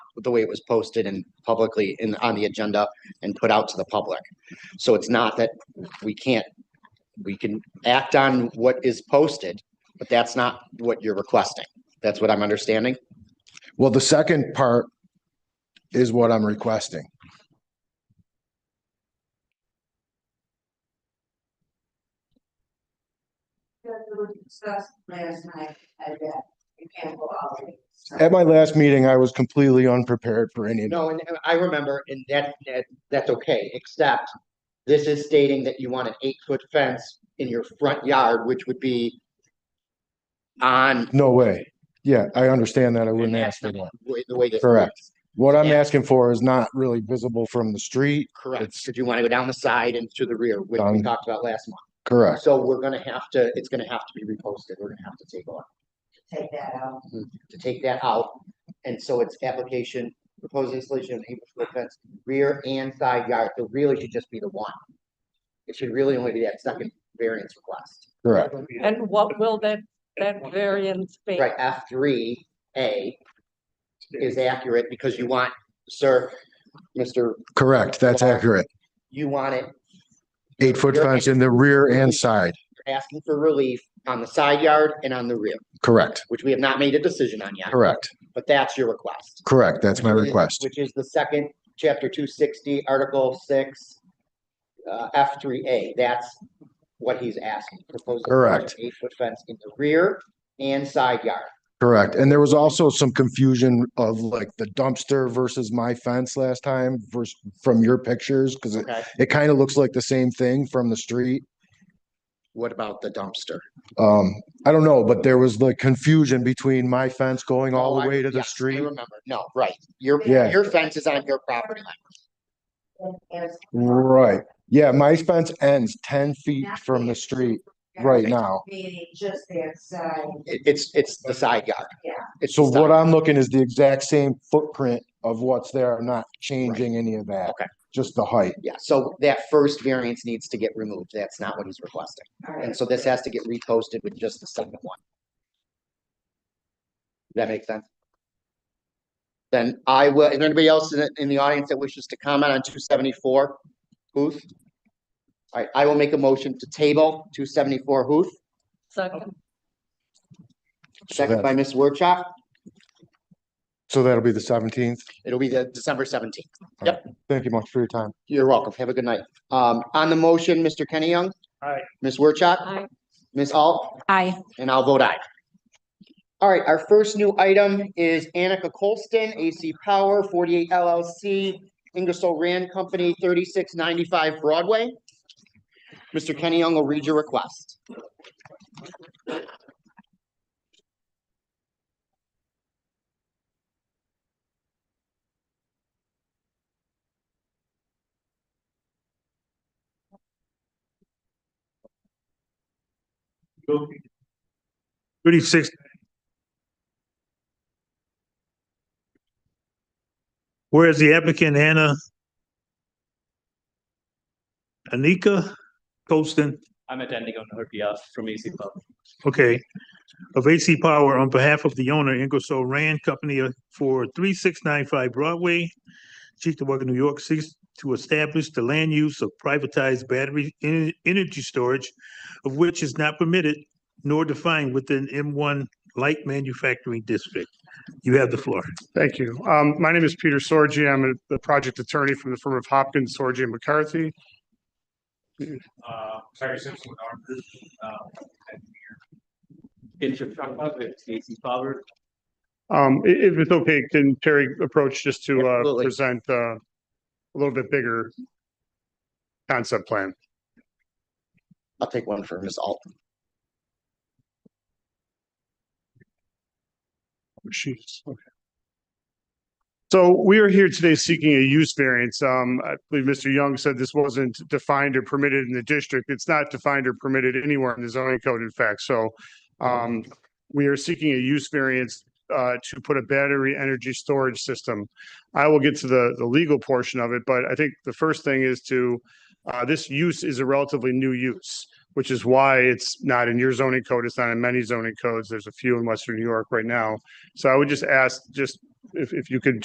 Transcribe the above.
the way it was posted and publicly in, on the agenda and put out to the public. So it's not that we can't, we can act on what is posted, but that's not what you're requesting. That's what I'm understanding. Well, the second part is what I'm requesting. Because it was discussed last night, and that you can't go out. so- At my last meeting, I was completely unprepared for any, No, and and I remember, and that, that, that's okay, except this is stating that you want an eight-foot fence in your front yard, which would be on no way. Yeah, I understand that. I wouldn't And ask for that. wa- the way that. Correct. What I'm Yeah. asking for is not really visible from the street. Correct, It's- because you want to go down the side and to the rear, which we Done. talked about last month. Correct. So we're gonna have to, it's gonna have to be reposted, we're gonna have to take on, Take that out. to take that out. And so it's application, proposed installation of an eight-foot fence, rear and side yard, it really should just be the one. It should really only be that second variance request. Correct. And what will that, that variance be? Right, F three A is accurate because you want, sir, Mr., Correct. That's accurate. you want it, Eight foot fence in the rear and side. you're asking for relief on the side yard and on the rear, Correct. which we have not made a decision on yet, Correct. but that's your request. Correct. That's my Which is- request. Which is the second, chapter two sixty, article six, uh, F three A, that's what he's asking. Proposed Correct. Eight foot fence in the rear and side yard. Correct. And there was also some confusion of like the dumpster versus my fence last time versus from your pictures, because it, Okay. it kind of looks like the same thing from the street. What about the dumpster? Um, I don't know, but there was like confusion between my fence going all Oh, I- the way to the yes, I street. Remember, no, right, your, Yeah. your fence is on your property line, And there's- Right. Yeah, my fence ends ten feet from the street right now. Meaning just the outside, It- it's, it's the side yard. Yeah. It's So the what side- I'm looking is the exact same footprint of what's there. I'm not changing any of that. Okay. Just the height. Yeah, so that first variance needs to get removed, that's not what he's requesting, all right. and so this has to get reposted with just the second one. Does That make sense? Then I will, is there anybody else in, the- in the audience that wishes to comment on two seventy-four Huth? Alright, I will make a motion to table two seventy-four Huth, Second, So second by that, Ms. Workshop, so that'll be the seventeenth. it'll be the December seventeenth. Thank you much for your time. You're welcome. Have a good night. Um, on the motion, Mr. Kenny Young. Aye. Ms. Wertschok, aye. Ms. Alt, Aye. and I'll vote aye. All right, our first new item is Annika Colston, AC Power, forty-eight LLC, Ingersoll Rand Company, thirty-six ninety-five Broadway. Mr. Kenny Young will read your request. Thirty-six. Whereas the applicant Hannah Anika Colston, I'm attending on her behalf from AC Pub. okay, of AC Power on behalf of the owner Ingersoll Rand Company for three six nine five Broadway, Chickawaga, New York, seeks to establish the land use of privatized battery en- energy storage of which is not permitted nor defined within M one light manufacturing district. You have the floor. Thank you. Um, my name is Peter Sorgi. I'm a- the project attorney from the firm of Hopkins, Sorgi and McCarthy. Uh, Terry Simpson with our group, uh, I'm here. In Chicago, it's AC Power. Um, i- if it's okay, can Terry approach just to, uh, Absolutely. present, uh, a little bit bigger concept plan? I'll take one for Ms. Alt. She's, okay. So we are here today seeking a use variance. Um, I believe Mr. Young said this wasn't defined or permitted in the district. It's not defined or permitted anywhere in the zoning code, in fact, so. Um, we are seeking a use variance uh to put a battery energy storage system. I will get to the the legal portion of it, but I think the first thing is to. Uh, this use is a relatively new use, which is why it's not in your zoning code. It's not in many zoning codes. There's a few in Western New York right now. So I would just ask, just if, if you could